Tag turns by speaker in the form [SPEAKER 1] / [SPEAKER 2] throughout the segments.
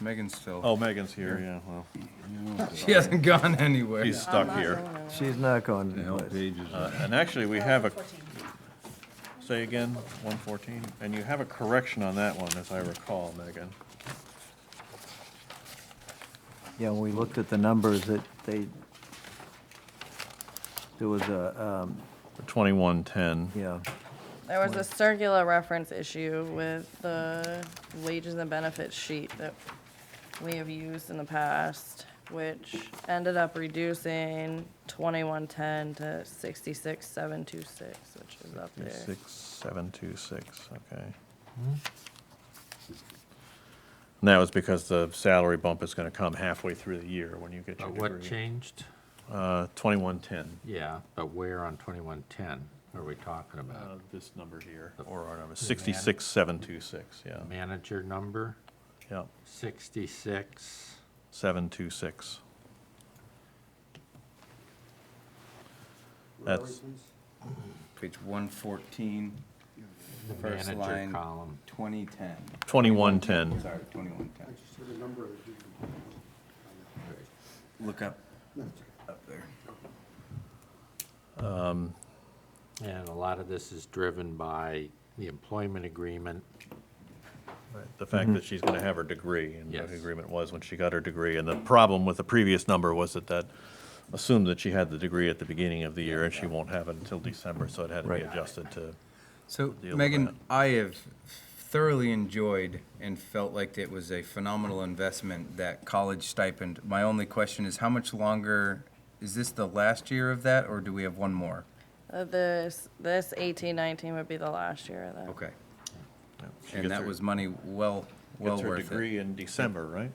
[SPEAKER 1] Megan's still,
[SPEAKER 2] Oh, Megan's here, yeah, well,
[SPEAKER 1] she hasn't gone anywhere.
[SPEAKER 2] he's stuck here.
[SPEAKER 3] She's not going
[SPEAKER 1] The
[SPEAKER 3] to
[SPEAKER 1] help
[SPEAKER 3] place.
[SPEAKER 1] page is-
[SPEAKER 2] Uh, And actually, we have a,
[SPEAKER 4] 14.
[SPEAKER 2] say again, one fourteen, and you have a correction on that one, as I recall, Megan.
[SPEAKER 3] Yeah, when we looked at the numbers, that they, there was a, um,
[SPEAKER 2] Twenty-one ten.
[SPEAKER 3] yeah,
[SPEAKER 5] There was a circular reference issue with the wages and benefits sheet that we have used in the past, which ended up reducing twenty-one ten to sixty-six seven two six, which is up there.
[SPEAKER 2] Six, seven, two, six, okay. And that was because the salary bump is gonna come halfway through the year when you get your
[SPEAKER 6] But
[SPEAKER 2] degree.
[SPEAKER 6] what changed?
[SPEAKER 2] Uh, twenty-one ten,
[SPEAKER 6] Yeah, but where on twenty-one ten are we talking about?
[SPEAKER 2] Uh, this number here, or our number, sixty-six, yeah,
[SPEAKER 6] Manager number,
[SPEAKER 2] yeah,
[SPEAKER 6] sixty-six,
[SPEAKER 2] seven, two, six. That's,
[SPEAKER 1] Page one fourteen,
[SPEAKER 6] the
[SPEAKER 1] First
[SPEAKER 6] manager
[SPEAKER 1] line.
[SPEAKER 6] column.
[SPEAKER 1] twenty ten.
[SPEAKER 2] twenty-one ten,
[SPEAKER 1] Sorry, twenty-one ten. Look up, up there.
[SPEAKER 6] And a lot of this is driven by the employment agreement.
[SPEAKER 2] the
[SPEAKER 3] Mm-hmm.
[SPEAKER 2] fact that she's gonna have her degree, and what
[SPEAKER 6] Yes.
[SPEAKER 2] the agreement was when she got her degree, and the problem with the previous number was that that assumed that she had the degree at the beginning of the year, and she won't have it until December, so it had to be
[SPEAKER 3] Right.
[SPEAKER 2] adjusted to,
[SPEAKER 1] So
[SPEAKER 2] deal with that.
[SPEAKER 1] Megan, I have thoroughly enjoyed and felt like it was a phenomenal investment, that college stipend. My only question is how much longer, is this the last year of that or do we have one more?
[SPEAKER 5] Uh, This, this eighteen nineteen would be the last year of that.
[SPEAKER 1] Okay.
[SPEAKER 2] she
[SPEAKER 1] And
[SPEAKER 2] gets
[SPEAKER 1] that
[SPEAKER 2] her-
[SPEAKER 1] was money well, well
[SPEAKER 2] gets her
[SPEAKER 1] worth it.
[SPEAKER 2] degree in December, right?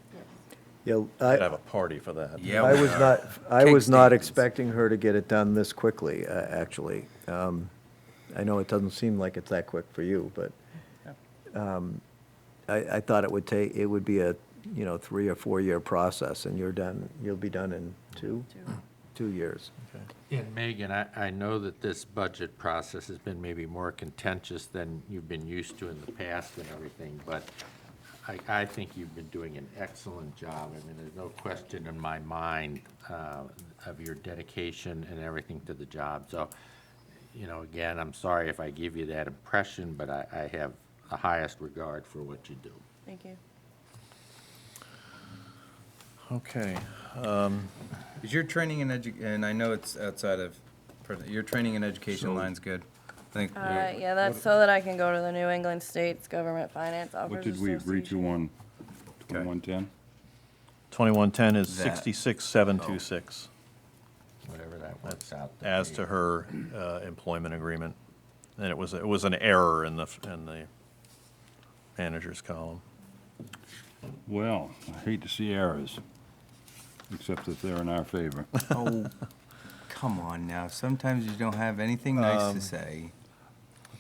[SPEAKER 3] yeah,
[SPEAKER 2] I'd have
[SPEAKER 3] I,
[SPEAKER 2] a party for that.
[SPEAKER 1] Yeah.
[SPEAKER 3] I
[SPEAKER 1] we
[SPEAKER 3] was
[SPEAKER 1] are.
[SPEAKER 3] not, I
[SPEAKER 1] Cake
[SPEAKER 3] was not
[SPEAKER 1] stands.
[SPEAKER 3] expecting her to get it done this quickly, uh, actually. Um, I know it doesn't seem like it's that quick for you, but, um, I, I thought it would take, it would be a, you know, three or four-year process, and you're done, you'll be done in two, two years.
[SPEAKER 2] Okay.
[SPEAKER 6] And Megan, I, I know that this budget process has been maybe more contentious than you've been used to in the past and everything, but I, I think you've been doing an excellent job. I mean, there's no question in my mind uh, of your dedication and everything to the job. So, you know, again, I'm sorry if I give you that impression, but I, I have the highest regard for what you do.
[SPEAKER 5] Thank you.
[SPEAKER 2] Okay,
[SPEAKER 1] Is your training and edu, and I know it's outside of, your training and education
[SPEAKER 2] So-
[SPEAKER 1] line's good. I think,
[SPEAKER 5] Uh, yeah, that's so that I can go to the New England States Government Finance
[SPEAKER 7] What
[SPEAKER 5] Officers
[SPEAKER 7] did we agree to
[SPEAKER 5] Association.
[SPEAKER 7] on 2110?
[SPEAKER 2] twenty-one ten is
[SPEAKER 1] That.
[SPEAKER 2] sixty-six, seven, two, six,
[SPEAKER 6] Whatever that works out. to
[SPEAKER 2] as
[SPEAKER 6] be.
[SPEAKER 2] to her uh, employment agreement. And it was, it was an error in the, f- in the manager's column.
[SPEAKER 7] Well, I hate to see errors, except that they're in our favor.
[SPEAKER 1] oh, come on now, sometimes you don't have anything nice to say.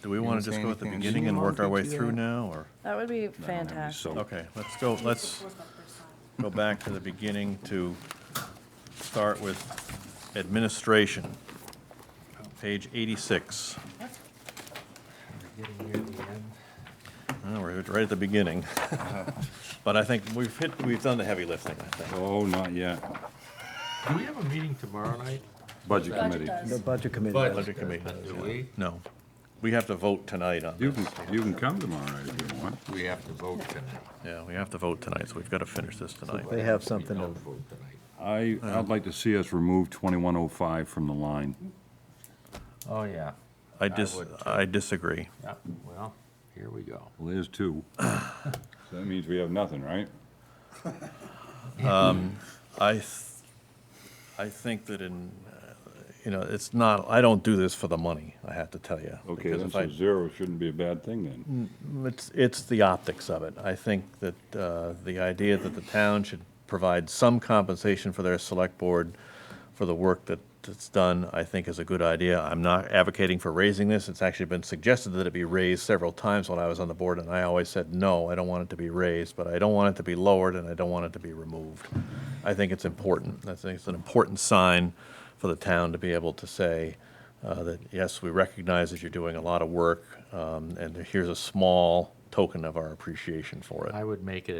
[SPEAKER 2] Do we
[SPEAKER 1] You
[SPEAKER 2] want
[SPEAKER 1] didn't
[SPEAKER 2] to
[SPEAKER 1] say
[SPEAKER 2] just go at the
[SPEAKER 1] anything.
[SPEAKER 2] beginning and work our way through now, or?
[SPEAKER 5] That would be
[SPEAKER 7] That'd be
[SPEAKER 5] fantastic.
[SPEAKER 7] so-
[SPEAKER 2] Okay, let's go, let's go back to the beginning to start with administration. Page eighty-six.
[SPEAKER 6] Getting near the end.
[SPEAKER 2] Well, we're right at the beginning. But I think we've hit, we've done the heavy lifting, I think.
[SPEAKER 7] Oh, not yet.
[SPEAKER 6] Do we have a meeting tomorrow night?
[SPEAKER 7] Budget committee.
[SPEAKER 3] The budget committee.
[SPEAKER 1] But-
[SPEAKER 3] does.
[SPEAKER 2] Budget committee.
[SPEAKER 6] Do we?
[SPEAKER 2] No. We have to vote tonight on
[SPEAKER 7] You
[SPEAKER 2] this.
[SPEAKER 7] can, you can come tomorrow night if you want.
[SPEAKER 6] We have to vote tonight.
[SPEAKER 2] Yeah, we have to vote tonight, so we've got to finish this tonight.
[SPEAKER 3] They have something
[SPEAKER 6] We
[SPEAKER 3] to,
[SPEAKER 6] don't vote tonight.
[SPEAKER 7] I, I'd like to see us remove 2105 from the line.
[SPEAKER 6] Oh, yeah.
[SPEAKER 2] I dis,
[SPEAKER 6] would, too.
[SPEAKER 2] I disagree.
[SPEAKER 6] Yeah, well, here we go.
[SPEAKER 7] Well, there's two. So That means we have nothing, right?
[SPEAKER 2] I, th- I think that in, uh, you know, it's not, I don't do this for the money, I have to tell you.
[SPEAKER 7] Okay,
[SPEAKER 2] because
[SPEAKER 7] then
[SPEAKER 2] if I-
[SPEAKER 7] so zero shouldn't be a bad thing then.
[SPEAKER 2] It's, it's the optics of it. I think that uh, the idea that the town should provide some compensation for their select board for the work that, that's done, I think is a good idea. I'm not advocating for raising this. It's actually been suggested that it be raised several times when I was on the board, and I always said, no, I don't want it to be raised, but I don't want it to be lowered, and I don't want it to be removed. I think it's important. I think it's an important sign for the town to be able to say, uh, that, yes, we recognize that you're doing a lot of work, um, and here's a small token of our appreciation for it.
[SPEAKER 6] I would make it a